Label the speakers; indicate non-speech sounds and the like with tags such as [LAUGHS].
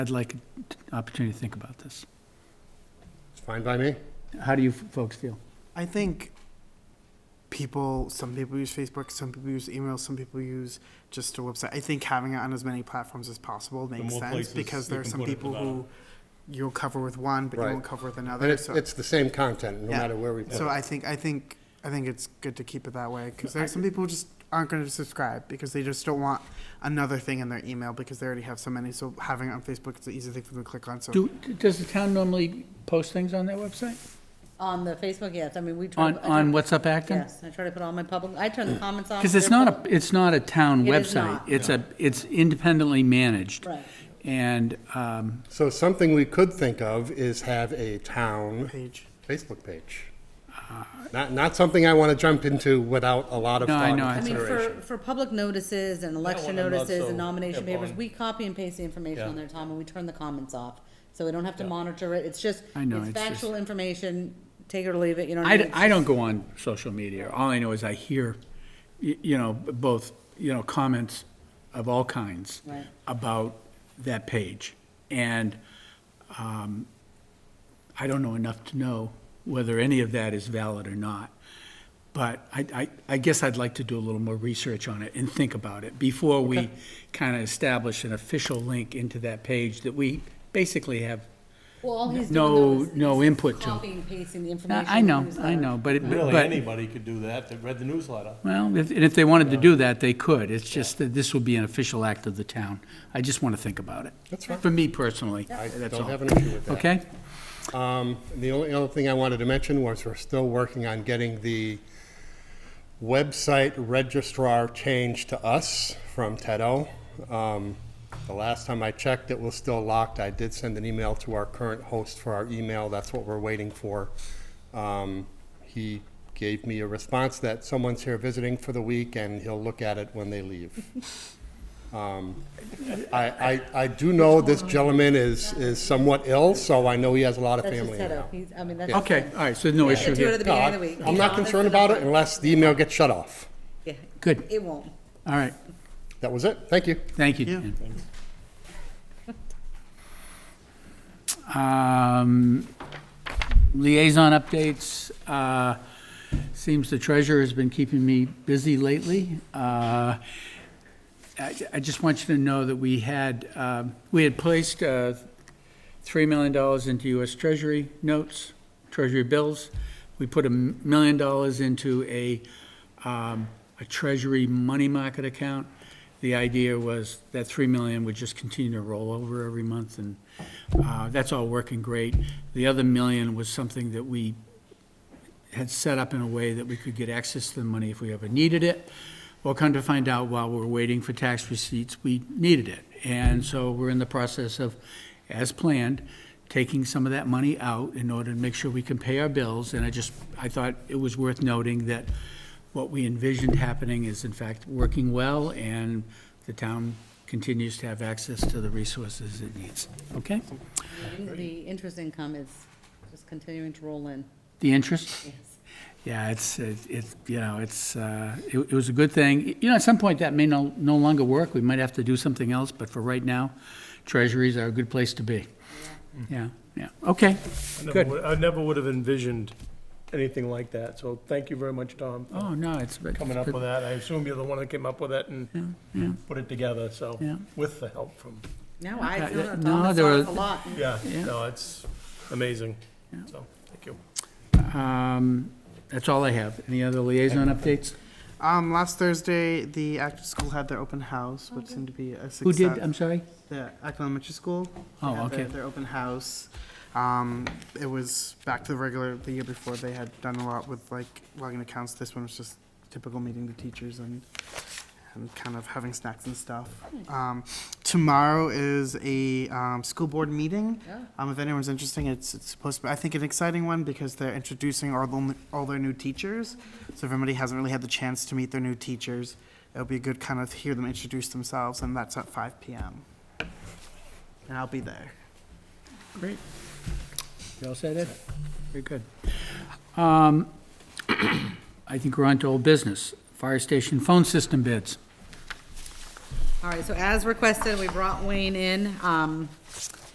Speaker 1: I'd like an opportunity to think about this.
Speaker 2: It's fine by me.
Speaker 1: How do you f- folks feel?
Speaker 3: I think people, some people use Facebook, some people use email, some people use just a website. I think having it on as many platforms as possible makes
Speaker 4: more
Speaker 3: sense
Speaker 4: places
Speaker 3: because
Speaker 4: you
Speaker 3: there are
Speaker 4: can
Speaker 3: some
Speaker 4: put it, the
Speaker 3: people
Speaker 4: better.
Speaker 3: who you'll cover with one, but
Speaker 2: Right.
Speaker 3: you won't cover with
Speaker 2: But
Speaker 3: another.
Speaker 2: it's,
Speaker 3: So,
Speaker 2: it's the same content, no
Speaker 3: Yeah.
Speaker 2: matter where we put
Speaker 3: so
Speaker 2: it.
Speaker 3: I think, I think, I think it's good to keep it that way because there are some people who just aren't going to subscribe because they just don't want another thing in their email because they already have so many. So having it on Facebook, it's an easy thing for them to click on. So
Speaker 1: Do, does the town normally post things on their website?
Speaker 5: On the Facebook, yes, I mean, we try.
Speaker 1: On,
Speaker 5: I try-
Speaker 1: on What's Up Acton?
Speaker 5: Yes, I try to put all my public, I turn the comments off.
Speaker 1: Because it's
Speaker 5: they're
Speaker 1: not
Speaker 5: public.
Speaker 1: a, it's not a town
Speaker 5: It is
Speaker 1: website.
Speaker 5: not.
Speaker 1: It's a, it's independently managed.
Speaker 5: Right.
Speaker 1: And, um,
Speaker 2: So something we could think of is have a town
Speaker 3: page.
Speaker 2: Facebook page. Not, not something I want to jump into without a lot of
Speaker 1: No, I
Speaker 2: thought
Speaker 1: know.
Speaker 2: and
Speaker 1: I
Speaker 5: I mean,
Speaker 2: consideration.
Speaker 5: for, for public notices and election
Speaker 4: when I'm not
Speaker 5: notices
Speaker 4: so
Speaker 5: and nomination
Speaker 4: hip
Speaker 5: papers,
Speaker 4: on-
Speaker 5: we copy and paste the information
Speaker 4: Yeah.
Speaker 5: on their time and we turn the comments off. So we don't have to monitor it. It's just,
Speaker 1: I know,
Speaker 5: it's
Speaker 1: it's just-
Speaker 5: factual information, take it or leave it, you know what I
Speaker 1: I,
Speaker 5: mean?
Speaker 1: I don't go on social media. All I know is I hear, y- you know, both, you know, comments of all kinds
Speaker 5: Right.
Speaker 1: about that page. And um, I don't know enough to know whether any of that is valid or not. But I, I, I guess I'd like to do a little more research on it and think about it before we kind of establish an official link into that page that we basically have.
Speaker 5: Well, all he's doing
Speaker 1: No-
Speaker 5: though is-
Speaker 1: no
Speaker 5: is
Speaker 1: input to.
Speaker 5: Copying and pasting the information.
Speaker 1: I
Speaker 5: in the
Speaker 1: know, I
Speaker 5: newsletter.
Speaker 1: know, but it, but.
Speaker 4: Really, anybody could do that that read the newsletter.
Speaker 1: Well, if, and if they wanted to do that, they could. It's just that this would be an official act of the town. I just want to think about it. That's right. For me personally,
Speaker 2: I
Speaker 1: that's
Speaker 2: don't
Speaker 1: all.
Speaker 2: have an issue with that.
Speaker 1: Okay?
Speaker 2: Um, The only other thing I wanted to mention was we're still working on getting the website registrar changed to us from Tedo. Um, The last time I checked, it was still locked. I did send an email to our current host for our email. That's what we're waiting for. Um, He gave me a response that someone's here visiting for the week and he'll look at it when they leave.
Speaker 5: [LAUGHS]
Speaker 2: Um, I, I, I do know this gentleman is, is somewhat ill, so I know he has a lot of
Speaker 5: That's just
Speaker 2: family
Speaker 5: set
Speaker 2: now.
Speaker 5: up. He's, I mean, that's.
Speaker 1: Okay, all right, so no
Speaker 5: I do
Speaker 1: issue
Speaker 5: it at
Speaker 1: here.
Speaker 5: the
Speaker 2: No,
Speaker 5: beginning of the week.
Speaker 2: I- I'm not
Speaker 5: Honest
Speaker 2: concerned
Speaker 5: and
Speaker 2: about it
Speaker 5: upfront.
Speaker 2: unless the email gets shut off.
Speaker 5: Yeah.
Speaker 1: Good.
Speaker 5: It won't.
Speaker 1: All right,
Speaker 2: That was it. Thank you.
Speaker 1: thank you,
Speaker 3: Yeah.
Speaker 1: Dan. Um, Liaison updates, uh, seems the treasurer has been keeping me busy lately. Uh, I I just want you to know that we had, um, we had placed uh, $3 million into US Treasury notes, Treasury bills. We put a m- million dollars into a, um, a Treasury money market account. The idea was that 3 million would just continue to roll over every month, and uh, that's all working great. The other million was something that we had set up in a way that we could get access to the money if we ever needed it. Well, come to find out, while we're waiting for tax receipts, we needed it. And so we're in the process of, as planned, taking some of that money out in order to make sure we can pay our bills. And I just, I thought it was worth noting that what we envisioned happening is in fact working well, and the town continues to have access to the resources it needs. Okay?
Speaker 5: The interest income is just continuing to roll in,
Speaker 1: The interest?
Speaker 5: yes.
Speaker 1: Yeah, it's, it's, it's, you know, it's, uh, it it was a good thing. You know, at some point, that may no, no longer work. We might have to do something else, but for right now, treasuries are a good place to be. Yeah, yeah, okay.
Speaker 6: I never
Speaker 1: Good.
Speaker 6: would- I never would have envisioned anything like that, so thank you very much, Tom, for
Speaker 1: Oh, no, it's. but-
Speaker 6: coming up with that. I assume you're the one that came up with it and put it together, so,
Speaker 1: Yeah.
Speaker 6: with the help from,
Speaker 5: No, I,
Speaker 1: Okay,
Speaker 5: no,
Speaker 1: yeah,
Speaker 5: no,
Speaker 1: no,
Speaker 5: Tom, it's
Speaker 1: there
Speaker 5: off
Speaker 1: are-
Speaker 5: a lot.
Speaker 6: yeah,
Speaker 1: Yeah.
Speaker 6: no, it's amazing, so, thank you.
Speaker 1: Um, That's all I have. Any other liaison updates?
Speaker 3: Um, last Thursday, the Acton School had their open house, which seemed to be a success.
Speaker 1: Who did, I'm sorry?
Speaker 3: the Acton Elementary School. They
Speaker 1: Oh,
Speaker 3: had
Speaker 1: okay.
Speaker 3: Their, their open house. Um, it was back to the regular the year before. They had done a lot with like logging accounts. This one was just typical meeting the teachers and and kind of having snacks and stuff. Um, tomorrow is a um, school board meeting. Um, if anyone's interested, it's, it's supposed to be, I think, an exciting one because they're introducing all, the, all their new teachers. So if anybody hasn't really had the chance to meet their new teachers, it'll be good kind of hear them introduce themselves, and that's at 5 p.m. And I'll be there.
Speaker 1: Great. You all said it? Very good. Um, [COUGHS] I think we're on to old business. Fire station phone system bids.
Speaker 5: All right, so as requested, we brought Wayne in. Um,